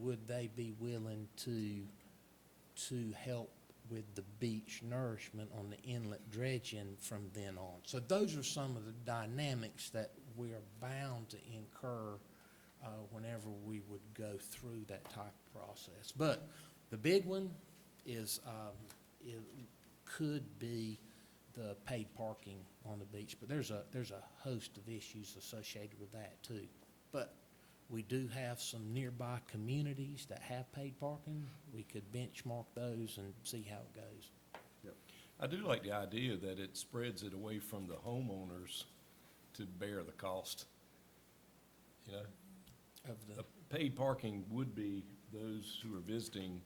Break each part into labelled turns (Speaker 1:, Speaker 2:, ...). Speaker 1: would they be willing to, to help with the beach nourishment on the inlet dredging from then on? So those are some of the dynamics that we are bound to incur uh, whenever we would go through that type of process. But the big one is, um, it could be the paid parking on the beach, but there's a, there's a host of issues associated with that too. But we do have some nearby communities that have paid parking. We could benchmark those and see how it goes.
Speaker 2: I do like the idea that it spreads it away from the homeowners to bear the cost. You know,
Speaker 1: Of
Speaker 2: a
Speaker 1: the,
Speaker 2: paid parking would be those who are visiting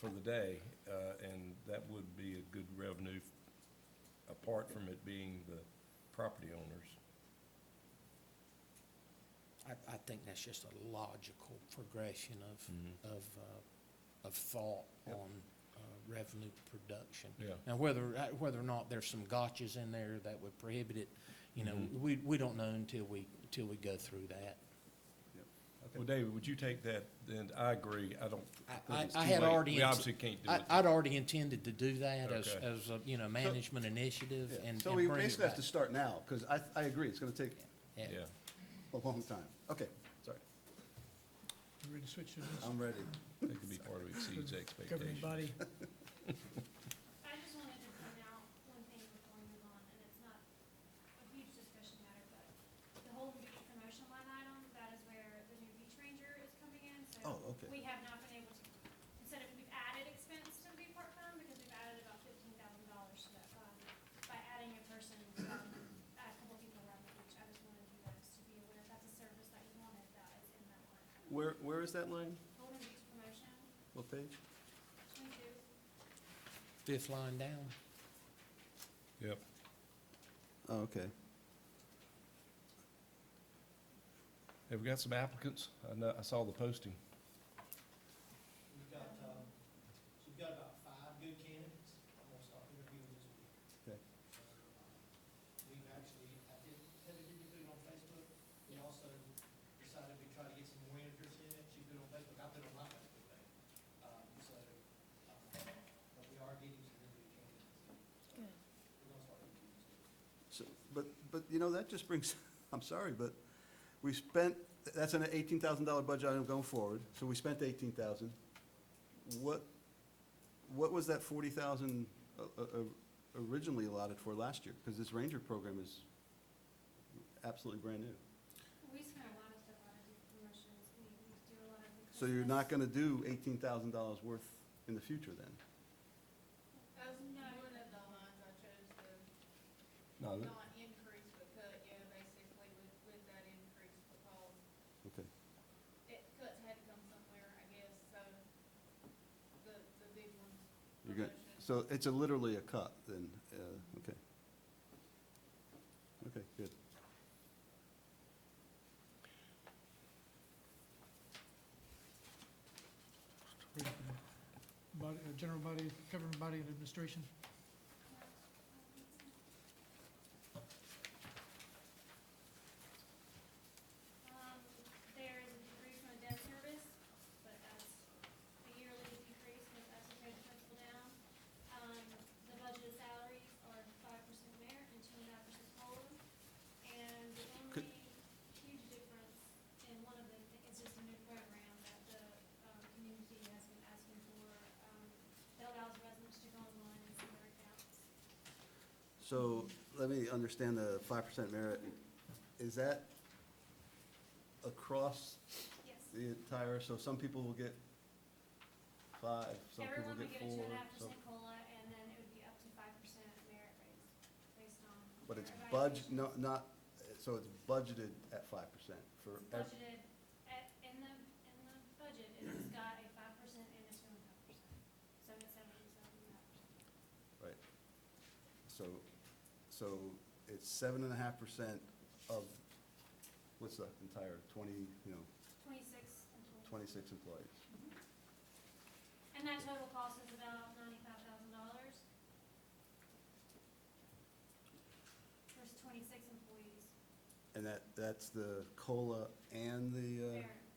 Speaker 2: for the day, uh, and that would be a good revenue apart from it being the property owners.
Speaker 1: I, I think that's just a logical progression of,
Speaker 2: Mhm.
Speaker 1: of, uh, of thought
Speaker 2: Yep.
Speaker 1: on uh, revenue production.
Speaker 2: Yeah.
Speaker 1: Now, whether, uh, whether or not there's some gotchas in there that would prohibit it, you know,
Speaker 2: Mhm.
Speaker 1: we, we don't know until we, until we go through that.
Speaker 2: Well, David, would you take that, then, I agree, I don't.
Speaker 1: I,
Speaker 2: think
Speaker 1: I
Speaker 2: it's
Speaker 1: I
Speaker 2: too
Speaker 1: had
Speaker 2: late.
Speaker 1: already.
Speaker 2: We obviously can't do
Speaker 1: I-
Speaker 2: it.
Speaker 1: I'd already intended to do that as,
Speaker 2: Okay.
Speaker 1: as, a, you know, management initiative
Speaker 3: Yeah.
Speaker 1: and.
Speaker 3: So
Speaker 1: and
Speaker 3: we
Speaker 1: bring it
Speaker 3: basically have to
Speaker 1: back.
Speaker 3: start now, because I, I agree, it's going to take
Speaker 2: Yeah.
Speaker 3: a long time. Okay, sorry,
Speaker 4: You ready to switch to this?
Speaker 3: I'm ready.
Speaker 2: That could be part of exceeds
Speaker 4: Governing
Speaker 2: expectations.
Speaker 4: body,
Speaker 5: I just wanted to point out one thing before we move on, and it's not a huge discussion matter, but the whole beach promotion line item, that is where the new beach ranger is coming in, so.
Speaker 3: Oh, okay.
Speaker 5: We have not been able to, instead of, we've added expense to the beach park fund, because we've added about fifteen thousand dollars to that fund by adding a person, um, a couple people around the beach, I just wanted you guys to be aware, that's a service that you wanted, that is in that line. item.
Speaker 3: Where, where is that line?
Speaker 5: Golden Beach promotion,
Speaker 3: What page?
Speaker 5: twenty-two,
Speaker 1: Fifth line down.
Speaker 2: Yep.
Speaker 3: Oh, okay.
Speaker 2: Have we got some applicants? I know, I saw the posting.
Speaker 6: We've got, um, so we've got about five good candidates. I'm gonna start interviewing this week.
Speaker 3: Okay.
Speaker 6: So, um, We've actually, I did, Heather did put it on Facebook. We also decided we try to get some more interest in it. She put it on Facebook, I put it on my Facebook page. Um, so, um, but we are getting some really good candidates. So,
Speaker 5: Good.
Speaker 6: We're gonna start interviewing this week.
Speaker 3: So, but, but, you know, that just brings, I'm sorry, but we spent, that's an $18,000 budget item going forward, so we spent 18,000. What, what was that 40,000 o- o- o- uh, originally allotted for last year? Because this Ranger program is absolutely brand new.
Speaker 5: We spend a lot of stuff on it, promotions, we we do a lot of. the
Speaker 3: So you're not
Speaker 5: Christmas.
Speaker 3: going to do $18,000 worth in the future then?
Speaker 7: That's one of the lines I chose to
Speaker 2: No, that-
Speaker 7: not increase, but cut, yeah, basically with, with that increase because
Speaker 3: Okay.
Speaker 7: it, cuts had to come somewhere, I guess, so the, the big ones.
Speaker 3: You're good.
Speaker 7: promotion.
Speaker 3: So it's a literally a cut then, uh, okay. Okay, good.
Speaker 4: body, uh, general body, governing body and administration.
Speaker 5: Um, there is a decrease on the debt service, but that's a yearly decrease, and that's a great principle down. Um, the budgeted salaries are five percent merit and two and a half percent COLA. And the
Speaker 3: Could-
Speaker 5: only huge difference in one of them is just a new program that the, um, community has been asking for, um, that allows residents to go online and see their accounts.
Speaker 3: So let me understand the five percent merit. Is that across
Speaker 5: Yes.
Speaker 3: the entire, so some people will get five, some people
Speaker 5: Everyone would
Speaker 3: get
Speaker 5: get a two
Speaker 3: four?
Speaker 5: and a half
Speaker 3: some-
Speaker 5: percent COLA, and then it would be up to five percent merit raise, based on.
Speaker 3: But it's
Speaker 5: their
Speaker 3: budg,
Speaker 5: evaluation.
Speaker 3: no, not, so it's budgeted at five percent for.
Speaker 5: It's
Speaker 3: ev-
Speaker 5: Budgeted, at, in the, in the budget, it's got a five percent and a two and a half percent, so it's seven, seven and a half percent.
Speaker 3: Right. So, so it's seven and a half percent of, what's the entire, twenty, you know,
Speaker 5: Twenty-six and twenty.
Speaker 3: twenty-six employees?
Speaker 5: And that total cost is about ninety-five thousand dollars. There's twenty-six employees,
Speaker 3: And that, that's the COLA and the, uh,
Speaker 5: merit,